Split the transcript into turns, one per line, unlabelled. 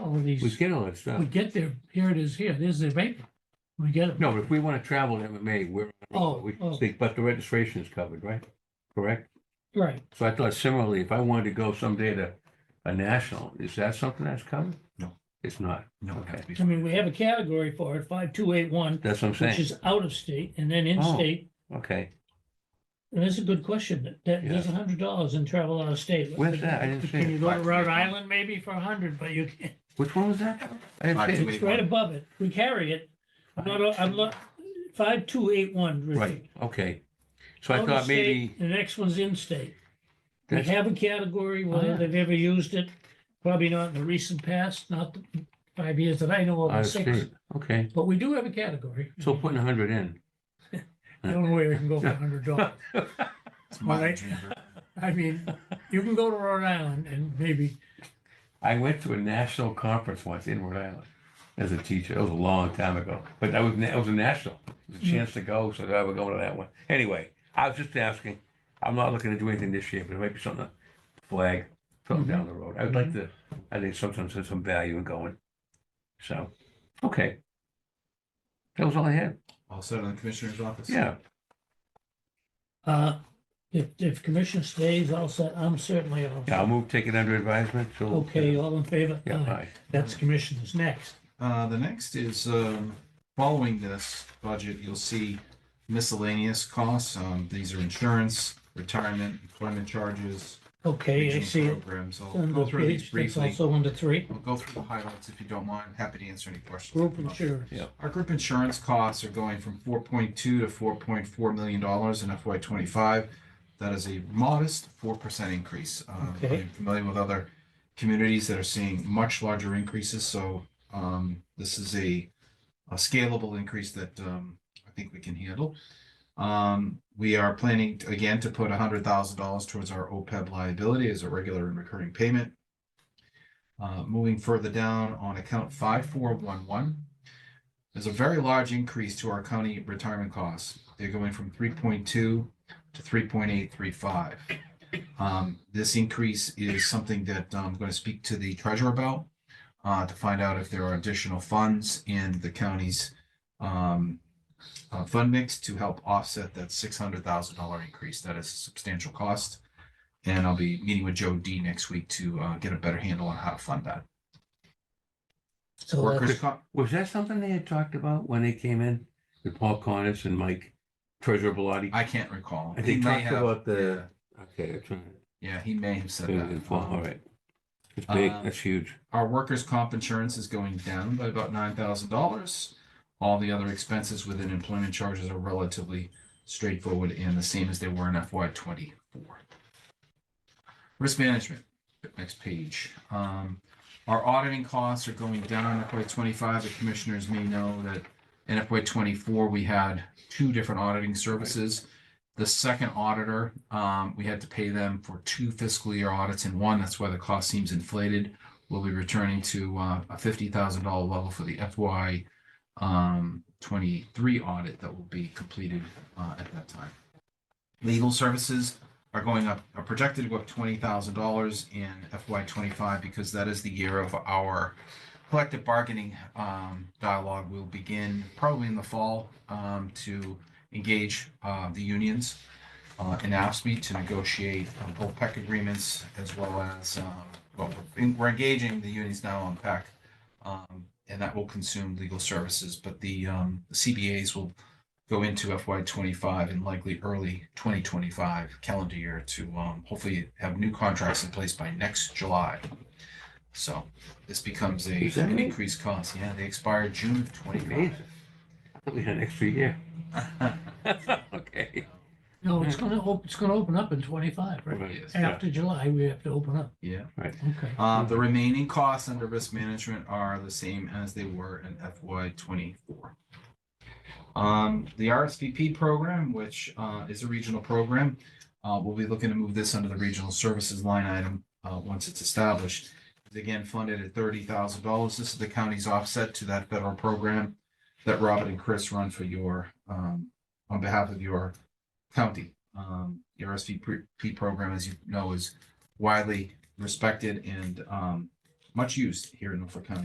all of
We
these.
get all that stuff.
We get there, here it is here, there's the vapor. We get it.
No, but if we want to travel in MMA, we're,
Oh,
we
oh.
speak, but the registration is covered, right? Correct?
Right,
So I thought similarly, if I wanted to go someday to a national, is that something that's covered?
No.
It's not.
No, it has to be.
I mean, we have a category for it, five two eight one,
That's what I'm
which
saying.
is out of state and then in
Oh.
state.
Okay.
And that's a good question. That- That, there's a hundred dollars in travel out of state.
Where's that? I didn't see
Can
it.
you go to Rhode Island maybe for a hundred, but you can't,
Which one was that? I didn't see it.
Wait,
it's right
what?
above it. We carry it. I'm not, I'm not, five two eight one.
Right, okay. So I thought maybe,
The next one's in state. They
that's- Uh-huh.
have a category,
yeah.
whether they've ever used it, probably not in the recent past, not the five years that I know of,
I
or
see
six.
it. okay.
But we do have a category.
So putting a hundred in.
The only way we can go for a hundred dollars.
It's my
Right.
dream.
I mean, you can go to Rhode Island and maybe,
I went to a national conference once in Rhode Island as a teacher. It was a long time ago, but that was that was a national. It was a chance to go, so I would go to that one. Anyway, I was just asking. I'm not looking to do anything this year, but it might be something to flag something down the road. I would like to. I think sometimes there's some value in going. So, okay. That was all I had.
All set on the commissioner's office?
Yeah.
uh, if, if commission stays, I'll say, I'm certainly all.
Yeah, I'll move, take it under advisement. So
Okay, all in favor?
Yeah.
Aye.
All right.
That's commissioners next.
Uh, the next is, um, following this budget, you'll see miscellaneous costs. Um, these are insurance, retirement, employment charges.
Okay, I
regional
see it.
Programs. I'll
Under
go through these
page, that's
briefly.
also under three,
We'll go through the highlights if you don't mind. Happy to answer any questions.
group insurance.
Yeah.
Our group insurance costs are going from four point two to four point four million dollars in FY twenty-five. That is a modest four percent increase. Um,
Okay.
I'm familiar with other communities that are seeing much larger increases, so um, this is a a scalable increase that um, I think we can handle. Um, we are planning to- again to put hundred thousand dollars towards our OPEB liability as a regular and recurring payment. Uh, moving further down on account five four one one, there's a very large increase to our county retirement costs. They're going from three point two to three point eight three five. Um, this increase is something that um, I'm going to speak to the treasurer about uh, to find out if there are additional funds in the county's um, uh, fund mix to help offset that six hundred thousand dollar increase. That is a substantial cost. And I'll be meeting with Joe D next week to uh, get a better handle on how to fund that.
So
Workers'
that's,
comp,
Was that something they had talked about when they came in with Paul Connors and Mike Treasurer Bellotti?
I can't recall.
I think
He may
talked
have-
about the-
yeah.
Okay, I'm trying.
Yeah, he may have said
Yeah,
that.
it's well, all right. It's big,
Um,
that's huge.
Our workers' comp insurance is going down by about nine thousand dollars. All the other expenses within employment charges are relatively straightforward and the same as they were in FY twenty-four. Risk management, next page. Um, our auditing costs are going down in FY twenty-five. The commissioners may know that in FY twenty-four, we had two different auditing services. The second auditor, um, we had to pay them for two fiscal year audits in one. That's why the cost seems inflated we'll be returning to uh, a fifty thousand dollar level for the FY um, twenty-three audit that will be completed uh, at that time. Legal services are going up, are projected to go up twenty thousand dollars in FY twenty-five because that is the year of our collective bargaining um, dialogue. We'll begin probably in the fall um, to engage uh, the unions uh, in AFSMI to negotiate um, both PEC agreements as well as, um, well, we're in- we're engaging the unions now on PEC. um, And that will consume legal services, but the um, CBAs will go into FY twenty-five and likely early twenty twenty-five calendar year to um, hopefully have new contracts in place by next July. So this becomes a
Is that
an
right?
increased cost. Yeah, they expire June of twenty-five.
Amazing. That'll be an extra year. Okay.
no, it's gonna, op- it's gonna open up in twenty-five, right?
Yes.
Yeah.
After July, we have to open up.
Yeah.
Okay.
Uh, the remaining costs under risk management are the same as they were in FY twenty-four. Um, the RSVP program, which, uh, is a regional program, uh, we'll be looking to move this under the regional services line item, uh, once it's established. It's Again, funded at thirty thousand dollars. This is the county's offset to that federal program that Robert and Chris run for your, um, on behalf of your county. Um, the RSVP program, as you know, is widely respected and um, much used here in Norfolk County.